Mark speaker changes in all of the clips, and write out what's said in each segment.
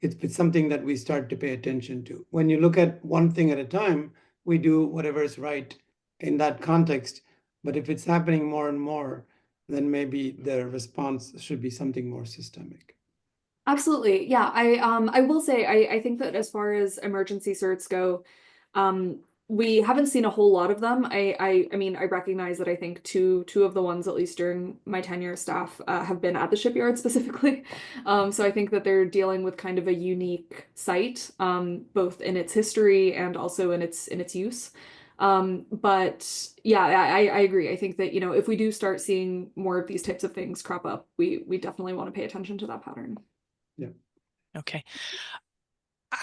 Speaker 1: it's, it's something that we start to pay attention to. When you look at one thing at a time, we do whatever is right in that context. But if it's happening more and more, then maybe the response should be something more systemic.
Speaker 2: Absolutely. Yeah. I um I will say I I think that as far as emergency certs go, um we haven't seen a whole lot of them. I I I mean I recognize that I think two two of the ones at least during my tenure staff uh, have been at the shipyard specifically. Um so I think that they're dealing with kind of a unique site um both in its history and also in its in its use. Um, but yeah, I, I I agree. I think that, you know, if we do start seeing more of these types of things crop up, we we definitely want to pay attention to that pattern.
Speaker 3: Okay.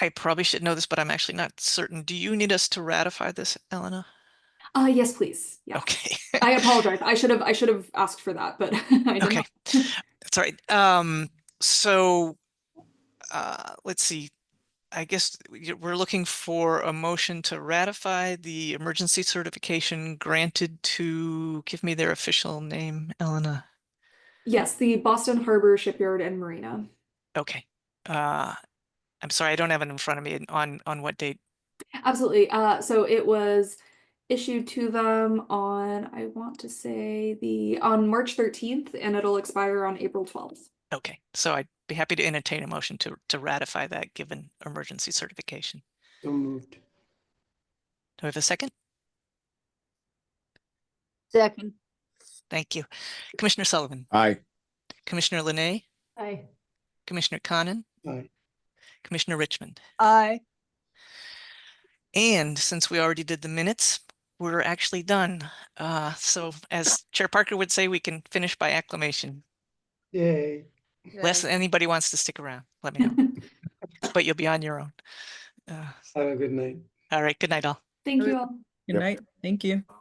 Speaker 3: I probably should know this, but I'm actually not certain. Do you need us to ratify this, Elena?
Speaker 2: Uh, yes, please. Yeah.
Speaker 3: Okay.
Speaker 2: I apologize. I should have I should have asked for that, but I did
Speaker 3: Okay.
Speaker 2: not.
Speaker 3: That's all right. Um, so, uh, let's see. I guess we- we're looking for a motion to ratify the emergency certification granted to, give me their official name, Elena.
Speaker 2: Yes, the Boston Harbor Shipyard and Marina.
Speaker 3: Okay. Uh, I'm sorry, I don't have it in front of me and on, on what date.
Speaker 2: Absolutely. Uh, so it was issued to them on I want to say the on March 13th and it'll expire on April 12th.
Speaker 3: Okay, so I'd be happy to entertain a motion to, to ratify that given emergency certification.
Speaker 1: So moved.
Speaker 3: Do I have a second?
Speaker 4: Second.
Speaker 3: Thank you. Commissioner Sullivan,
Speaker 5: Aye.
Speaker 3: Commissioner Linay,
Speaker 4: Aye.
Speaker 3: Commissioner Conan,
Speaker 1: Aye.
Speaker 3: Commissioner Richmond.
Speaker 4: Aye.
Speaker 3: And since we already did the minutes, we're actually done. Uh, so as Chair Parker would say, we can finish by acclamation.
Speaker 1: Yay.
Speaker 3: Unless anybody wants to stick around, let me know, but you'll be on your own. Uh,
Speaker 1: Have a good night.
Speaker 3: All right, good night all.
Speaker 2: Thank you
Speaker 6: Sure.
Speaker 2: all.
Speaker 6: Good
Speaker 5: Yep.
Speaker 6: night. Thank you.